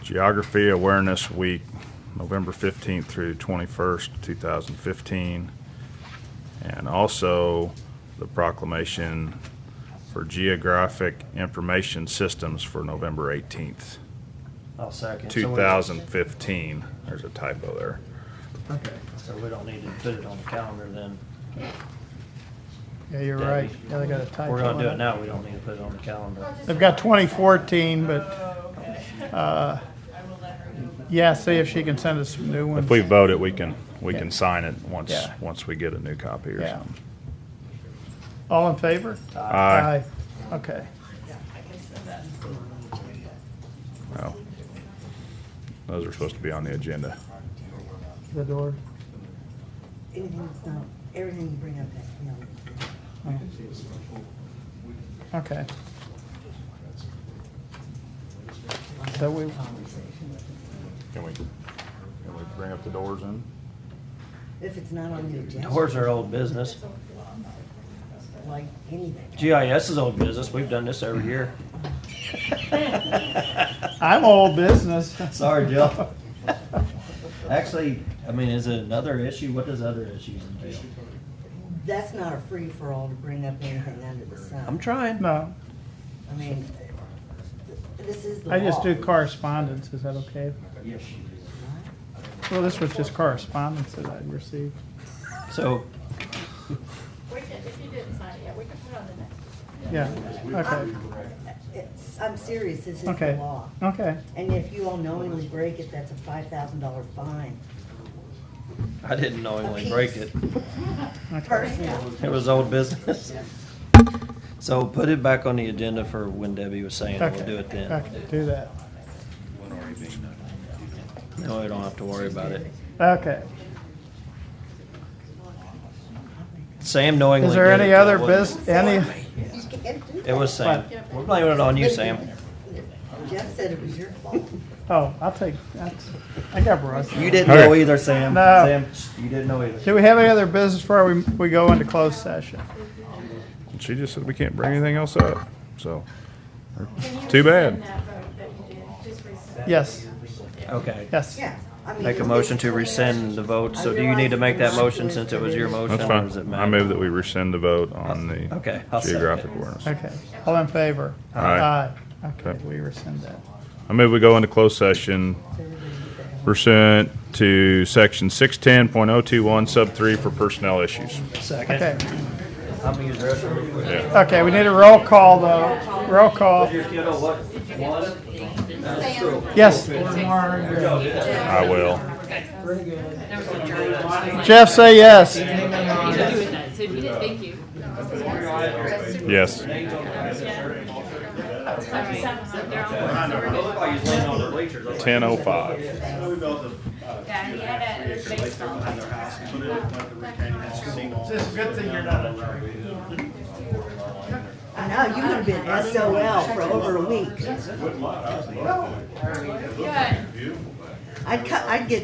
Geography Awareness Week, November 15th through 21st, 2015. And also the proclamation for Geographic Information Systems for November 18th, I'll second. So we- 2015. There's a typo there. Okay. So we don't need to put it on the calendar then. Yeah, you're Debbie. right. Yeah, they got a typo We're gonna do on it now, we don't need to put it on the calendar. They've got 2014, but, Oh, okay. uh, I will let her know. yeah, see if she can send us some new ones. If we vote it, we can, we Yeah. can sign it once, Yeah. once we get a new copy or Yeah. something. All in favor? Aye. Okay. Oh. Those are supposed to be on the agenda. The door. Anything's not, everything you bring up has to be on the agenda. Okay. So we, Can we, can we bring up the doors in? If it's not on the agenda. Doors are old business. Like anything. GIS is old business, we've done this every year. I'm old business. Sorry, Jill. Actually, I mean, is it another issue? What does other issues entail? That's not a free-for-all to bring up anything under the sun. I'm trying. No, I mean, this is the law. I just do correspondence. Is that okay? Yes, you do. Well, this was just correspondence that I'd received. So, We can, if you didn't sign it yet, we can put it on the next. Yeah, okay, It's- I'm serious, this is the okay, law. okay. And if you all knowingly break it, that's a five thousand dollar fine. I didn't knowingly break it. Okay. Personally, It was old business. So put it back on the agenda for when Debbie was saying, we'll Okay, do it then. Okay, do that. No, we don't have to worry about it. Okay. Sam knowingly. Is there did it, any though, other wasn't bus, any, you can't do It that. It was Sam. What? We're blaming it on you, Sam. Jeff said it was your fault. oh, I'll take, that's, I got Russ. You didn't know either, Sam. No. Sam, you didn't know either. Do we have any other business before we, we go into closed session? She just said we can't bring anything else up, so. Can you Too bad. rescind that vote that you did? Just rescind it. Yes, Okay. yes. Yeah. I mean, Make a it's- motion to rescind the vote. So do you need to make that motion since it was your motion? That's or does it fine. I matter? move that we rescind the vote on the Okay, I'll second geographic it. awareness. Okay, all in favor? Aye. Aye. Okay, Okay. we rescind that. I move we go into closed session pursuant to section six ten point oh two one sub three for personnel issues. Okay, Second. I'm gonna use the restroom real quick. Yeah. okay, we need a roll call though, roll call. You know what? One, that's true. Yes, I will. Jeff, say yes. So if you didn't, thank you. Yes. They're all- Ten oh five. Yeah, he had a baseball. It's a good thing you're not I know, you would have been SOL for over a week. Good. I'd cut, I'd get